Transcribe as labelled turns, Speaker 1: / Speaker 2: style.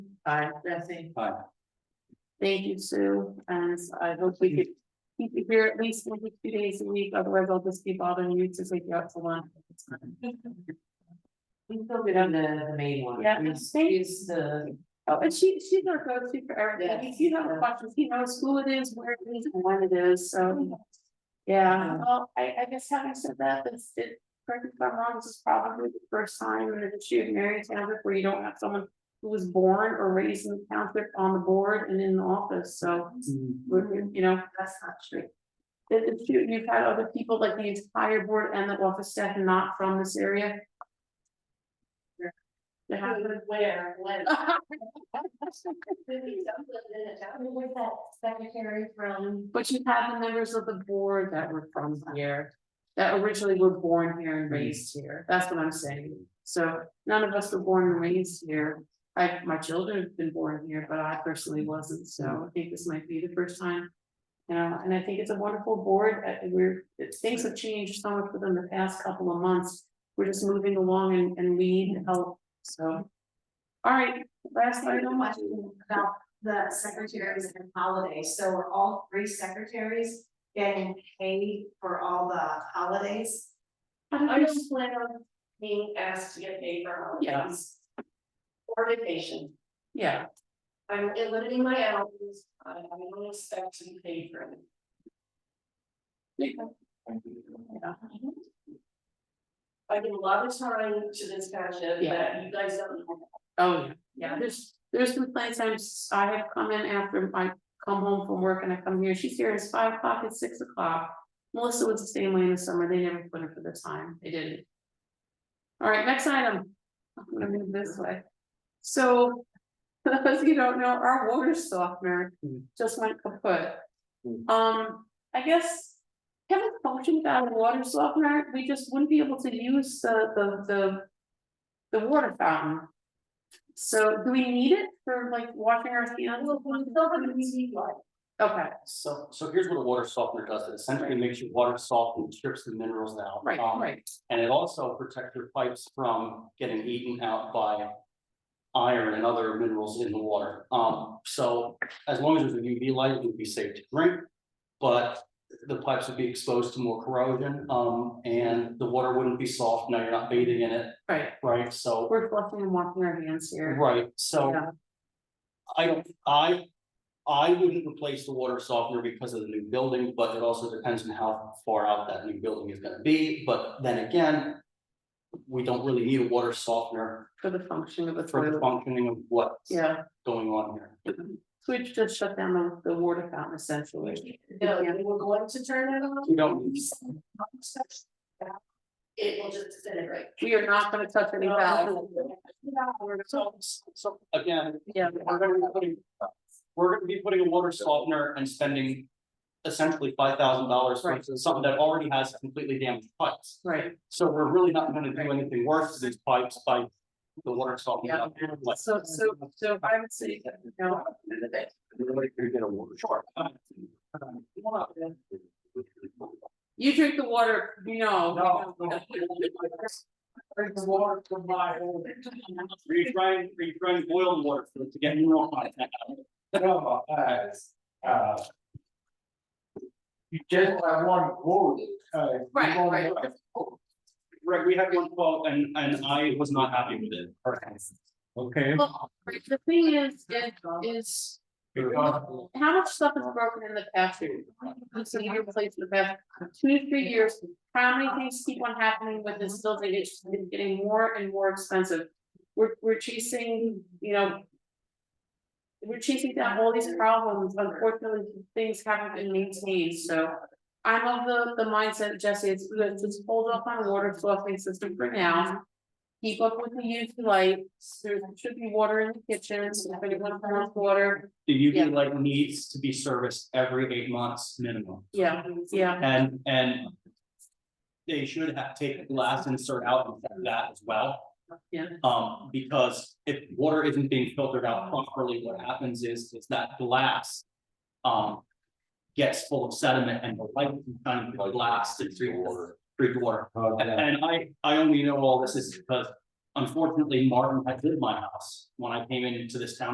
Speaker 1: Aye. Jesse.
Speaker 2: Aye.
Speaker 1: Thank you, Sue, and I hope we could keep you here at least one to two days a week, otherwise I'll just be bothering you to take you out to lunch.
Speaker 3: We still get on the, the main one.
Speaker 1: Yeah,
Speaker 3: We
Speaker 1: I think-
Speaker 3: Use the,
Speaker 1: Oh, and she, she's our go-to for everything, if you have questions, he knows who it is, where it is, and when it is, so. Yeah, well, I, I guess having said that, this, it, correct me if I'm wrong, this is probably the first time in the history of Marion Township where you don't have someone. Who was born or raised in the township on the board and in the office, so, we're- we're, you know, that's not true. It- it's true, you've had other people, like the entire board and the office staff not from this area. It happened.
Speaker 3: where, when.
Speaker 4: With that secretary from,
Speaker 1: But you have the members of the board that were from here, that originally were born here and raised here, that's what I'm saying. So none of us were born and raised here, I, my children have been born here, but I personally wasn't, so I think this might be the first time. You know, and I think it's a wonderful board, uh, we're, it- things have changed so much within the past couple of months, we're just moving along and, and we need help, so. All right, last
Speaker 4: a
Speaker 1: item,
Speaker 4: question about the secretaries and holidays, so are all three secretaries getting paid for all the holidays?
Speaker 1: I
Speaker 3: I
Speaker 1: don't-
Speaker 3: just plan on being asked to get paid for holidays.
Speaker 1: Yes.
Speaker 3: Or vacation,
Speaker 1: yeah,
Speaker 3: I'm limiting my hours, I I don't expect to be paid for it.
Speaker 1: yeah,
Speaker 3: I give a lot of time to this township
Speaker 1: Yeah.
Speaker 3: that you guys don't know.
Speaker 1: oh, yeah. Yeah, there's, there's been plenty of times I have come in after I come home from work and I come here, she's here, it's five o'clock, it's six o'clock. Melissa was the same way in the summer, they never put her for the time, they didn't. All right, next item. I'm gonna move this way. So, for those of you who don't know, our water softener just went kaput.
Speaker 2: Hmm.
Speaker 1: Um, I guess Kevin functioned without a water softener, we just wouldn't be able to use the, the, the, the water fountain. So do we need it for like washing our hands? Okay,
Speaker 2: So, so here's what a water softener does, it essentially makes your water soft and strips the minerals out.
Speaker 1: right,
Speaker 2: Um,
Speaker 1: right,
Speaker 2: And it also protects your pipes from getting eaten out by iron and other minerals in the water. Um, so as long as there's a UV light, it would be safe to drink. But the pipes would be exposed to more corrosion, um, and the water wouldn't be soft, now you're not bathing in it,
Speaker 1: right.
Speaker 2: right? So
Speaker 1: We're flushing and washing our hands here.
Speaker 2: Right, so.
Speaker 1: Yeah.
Speaker 2: I don't, I, I wouldn't replace the water softener because of the new building, but it also depends on how far out that new building is gonna be, but then again. We don't really need a water softener
Speaker 1: For the function of the
Speaker 2: for the
Speaker 1: toilet.
Speaker 2: functioning of what's
Speaker 1: Yeah,
Speaker 2: going on here.
Speaker 1: so we just shut down the, the water fountain essentially.
Speaker 3: No, you were going to turn that on.
Speaker 2: We don't,
Speaker 3: It will just disintegrate.
Speaker 1: We are not gonna touch any valve.
Speaker 2: so, so again,
Speaker 1: Yeah.
Speaker 2: we're gonna be putting. We're gonna be putting a water softener and spending essentially five thousand dollars for
Speaker 1: Right.
Speaker 2: something that already has completely damaged pipes.
Speaker 1: Right,
Speaker 2: So we're really not gonna do anything worse to these pipes by the water softening up. Like,
Speaker 1: so, so, so I would say that, you know,
Speaker 2: Sure.
Speaker 1: you drink the water, you
Speaker 2: Oh,
Speaker 1: know.
Speaker 2: Are you trying, are you trying boiled water for it to get more hot?
Speaker 5: No, uh, uh. You just have one quote, uh. you
Speaker 1: Right,
Speaker 5: only
Speaker 1: right.
Speaker 5: have one
Speaker 2: Right, we had one quote and, and I was not happy with it.
Speaker 5: Okay.
Speaker 1: Well, right, The thing is, is, is
Speaker 5: Because
Speaker 1: how much stuff is broken in the past year? So you replace the past two to three years, how many things keep on happening with this building, it's getting more and more expensive. We're, we're chasing, you know. We're chasing down all these problems, unfortunately, things haven't been maintained, so. I'm of the, the mindset, Jesse, it's, let's just hold off on water softening system for now. Keep up with the UV lights, there should be water in the kitchen, so if anyone wants water,
Speaker 2: The
Speaker 1: Yeah.
Speaker 2: UV light needs to be serviced every eight months minimum.
Speaker 1: yeah, yeah.
Speaker 2: And, and. They should have taken glass insert out of that as well.
Speaker 1: Yeah.
Speaker 2: Um, because if water isn't being filtered out properly, what happens is, is that glass. Um. Gets full of sediment and the light can kind of blast and treat water, treat water. And, and I, I only know all this is because unfortunately Martin had lived in my house when I came into this town.